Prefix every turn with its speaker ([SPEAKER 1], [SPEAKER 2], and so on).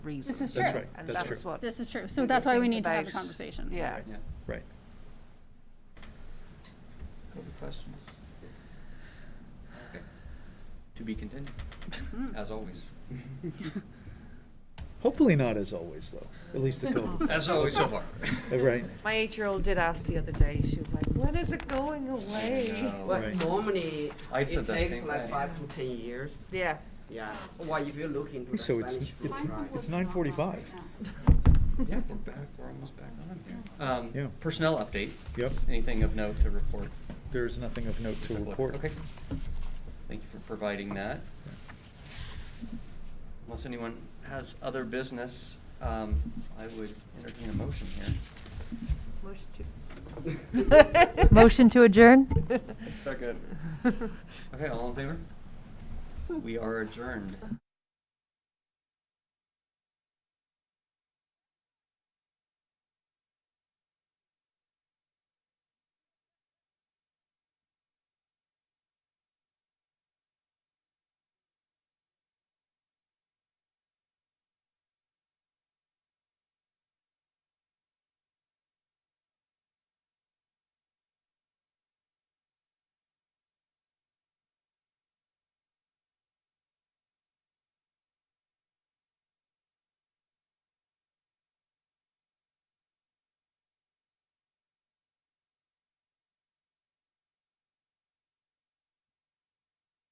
[SPEAKER 1] reason.
[SPEAKER 2] This is
[SPEAKER 3] That's
[SPEAKER 2] true.
[SPEAKER 3] right,
[SPEAKER 1] And
[SPEAKER 3] that's
[SPEAKER 1] that's
[SPEAKER 3] true.
[SPEAKER 1] what,
[SPEAKER 2] This is true. So
[SPEAKER 1] We
[SPEAKER 2] that's
[SPEAKER 1] just
[SPEAKER 2] why we
[SPEAKER 1] think
[SPEAKER 2] need to have a
[SPEAKER 1] about-
[SPEAKER 2] conversation.
[SPEAKER 1] yeah.
[SPEAKER 3] Right. Right.
[SPEAKER 4] Other questions?
[SPEAKER 5] Okay. To be continued, as always.
[SPEAKER 3] Hopefully not as always, though, at least the COVID.
[SPEAKER 5] As always so far.
[SPEAKER 3] Uh, Right,
[SPEAKER 1] My eight-year-old did ask the other day, she was like, when is it going away?
[SPEAKER 5] No.
[SPEAKER 3] Right.
[SPEAKER 6] But normally,
[SPEAKER 5] I said
[SPEAKER 6] it
[SPEAKER 5] that
[SPEAKER 6] takes
[SPEAKER 5] same
[SPEAKER 6] like
[SPEAKER 5] thing.
[SPEAKER 6] five to ten years.
[SPEAKER 1] Yeah,
[SPEAKER 6] Yeah. Well, if you look into the
[SPEAKER 3] So it's-
[SPEAKER 6] Spanish
[SPEAKER 3] it's-
[SPEAKER 6] roots, right?
[SPEAKER 3] it's nine forty-five.
[SPEAKER 5] Yeah, we're back, we're almost back on here.
[SPEAKER 3] Yeah.
[SPEAKER 5] Um, personnel update.
[SPEAKER 3] Yep.
[SPEAKER 5] Anything of note to report?
[SPEAKER 3] there is nothing of note to report.
[SPEAKER 5] Okay. Thank you for providing that. Unless anyone has other business, um, I would entertain a motion here.
[SPEAKER 7] Motion to adjourn?
[SPEAKER 5] Second. Okay, all in favor? We are adjourned.